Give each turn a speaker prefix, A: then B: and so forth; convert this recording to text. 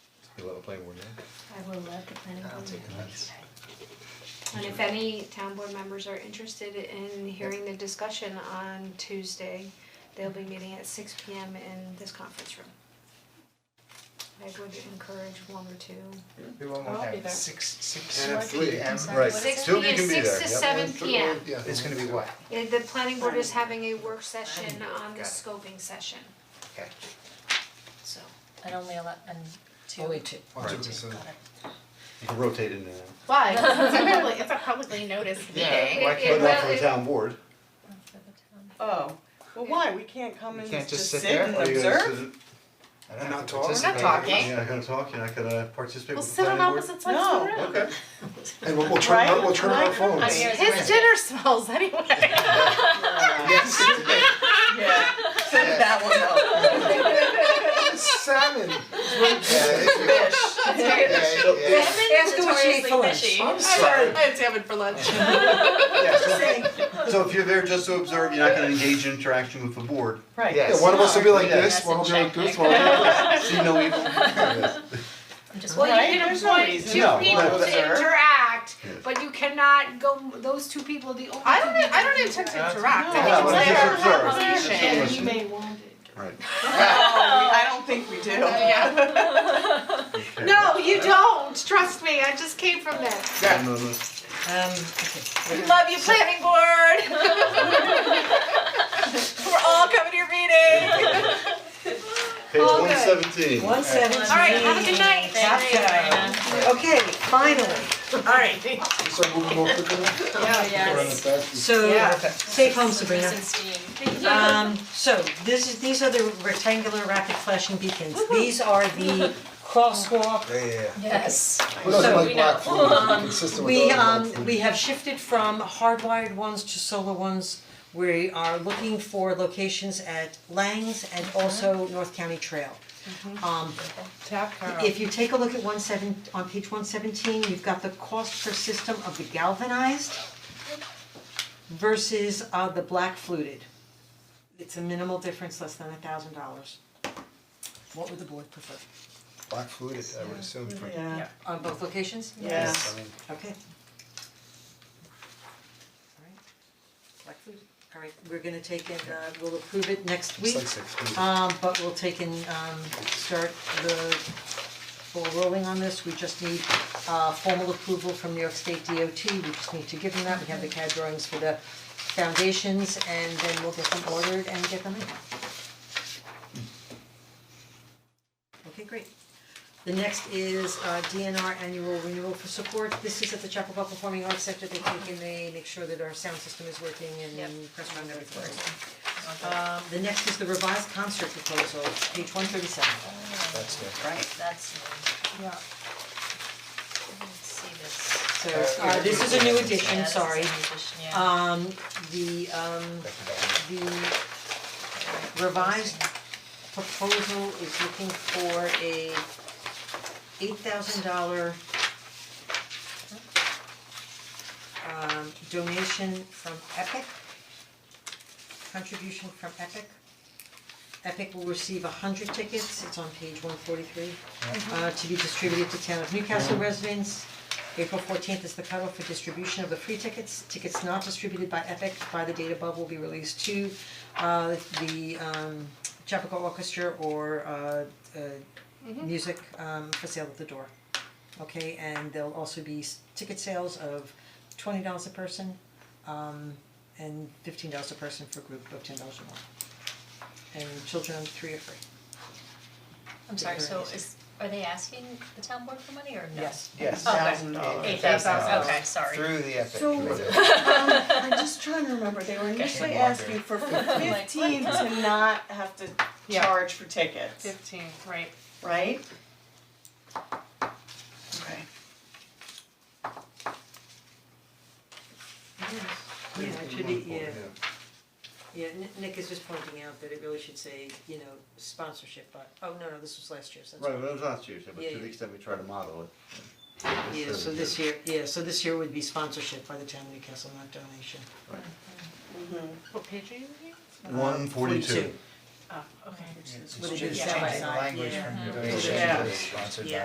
A: You'll have a planning board now?
B: I will let the planning board
A: I'll
B: know.
A: take offense.
B: And if any town board members are interested in hearing the discussion on Tuesday, they'll be meeting at six P M in this conference room. I would encourage one or two.
A: Do one
C: I'll
A: more
C: be
A: time,
C: there.
A: six, six,
D: And at three.
A: p.m. Right.
B: Six
A: Two of you
B: P.M.,
A: can be there,
B: Six to
A: yep.
B: seven P M.
D: Yeah.
A: It's gonna be what?
B: Uh, The planning board is having a work session on the
A: Got it.
B: scoping session,
A: Okay.
B: so.
C: And only ele- and two.
E: Only two.
A: Alright,
D: so-
C: Got it.
A: you can rotate in there.
F: Why? It's a public, it's a publicly noticed meeting.
A: Why
B: It- it-
A: can't,
B: well,
A: not for the
B: it-
A: town board?
C: Oh, well, why, we can't come
A: You
C: and
A: can't
C: just
A: just sit
C: sit
A: there,
C: and
A: or you're gonna
C: observe?
A: sit. I don't
D: And
A: have
D: not
A: to
D: talk? We're not
A: participate.
F: talking.
A: You're not gonna talk, you're not gonna participate
F: We'll
A: with the
F: sit on
A: planning board?
F: opposite sides of the room.
A: Okay.
D: And we'll, we'll turn,
C: Right?
D: we'll turn on our phones.
C: Right. Yeah.
F: His dinner smells anyway.
C: Yeah, so that will help.
D: Salmon. I'm sorry.
F: I had salmon for lunch.
A: Yeah, so, so if you're there just to observe, you're not gonna engage in interaction with the board.
C: Right.
A: Yes.
D: Yeah, one of us will be like
A: Yeah.
D: this, one will be like this, one will be like
A: See no evil.
E: I'm just.
B: Well,
C: Right?
B: you can
C: There's no
B: appoint
C: reason.
B: two
A: No,
B: people
A: but-
B: to interact,
A: Yes.
B: but you cannot go, those two people, the only two
F: I don't, e-,
B: people
F: I don't intend to interact, I
C: No,
F: think it's
C: but
F: there
A: just
F: for
A: observe.
F: conversation.
A: Just listen.
B: may want it.
A: Right.
C: Oh, we- I don't think we do.
A: Okay.
B: No, you don't, trust me, I just came from there.
A: Yeah, no, no.
E: Um, okay.
F: Love you, planning board. We're all coming to your meeting.
A: Page
B: All
A: one
B: good.
A: seventeen.
C: One seventeen.
B: All right, have a good night.
C: Thank you, Diana. Okay, finally, all right.
D: this. So moving more quickly.
E: yes.
C: Yeah.
E: So, safe home Sabrina. Um, so this is, these are the rectangular rapid flashing beacons. These are the crosswalk
D: Yeah, yeah, yeah.
E: Yes.
D: Who doesn't
E: So
D: like
E: we
D: black
E: know.
D: food, It's consistent with
E: We
D: other black
E: um
D: food.
E: we have shifted from hardwired ones to solar ones. We are looking for locations at Langs and also North County Trail. Um
C: Tap
E: if you take a look at one seven, on page one seventeen, you've got the cost per system of the galvanized versus uh the black fluted. It's a minimal difference, less than a thousand dollars. What would the board prefer?
D: Black food, I would assume. for-
C: Yeah.
E: On both locations?
C: Yeah.
D: I mean,
E: Okay. Alright, black food, alright, we're gonna take it, uh, we'll approve it next
D: It's
E: week.
D: like safe food.
E: Um, but we'll take and um start the ball rolling on this, we just need uh formal approval from New York State DOT, we just need to give them that, we have the CAD drawings for the foundations and then we'll get them ordered and get them in. Okay, great. The next is uh DNR annual renewal for support, this is at the Chapel Performing Arts Center, they take and they make sure that our sound system is working and press around everything. Um the next is the revised concert proposal, page one thirty seven.
D: That's good.
E: That's.
C: Yeah.
E: see this. So
D: Uh,
E: uh this is a new
D: Yeah,
E: edition, sorry. Um the um
D: Back to that.
E: the revised proposal is looking for a eight thousand dollar um donation from Epic, contribution from Epic. Epic will receive hundred tickets, it's on page one forty-three, uh to be distributed to town of Newcastle residents. April fourteenth is the cutoff for distribution of the free tickets, tickets not distributed by Epic by the date above will be released to uh the um Chappaqua Orchestra or uh uh music um for sale at the door. Okay, and there'll also be s- ticket sales of twenty dollars a person, um and fifteen dollars a person for a group of ten dollars or more. And children under three are free.
G: I'm sorry, so is, are they asking the town board for money or no?
A: Yes,
G: Okay.
A: thousand dollars.
G: Eight thousand, okay, sorry.
A: Through the epic.
C: So, um,
A: committee.
C: I'm just trying to remember, they were initially asking for fifteen to not have to
F: Yeah.
C: charge for tickets,
F: Fifteen, right.
C: right? Okay.
E: Yeah, it should be, yeah.
D: Yeah.
E: Yeah, Ni- Nick is just pointing out that it really should say, you know, sponsorship, but, oh, no, no, this was last year's, that's
A: Right, but it was last year, so, but
E: Yeah,
A: to the
E: yeah.
A: extent we try to model it.
E: Yeah, so this year, yeah, so this year would be sponsorship by the town of Newcastle, not donation.
F: What page are you reading?
E: uh,
A: One forty-two.
F: Oh, okay.
E: Would it be
G: just
E: semi
G: changing
E: side?
A: Language from
D: Donation
C: Yeah.
D: to sponsored by.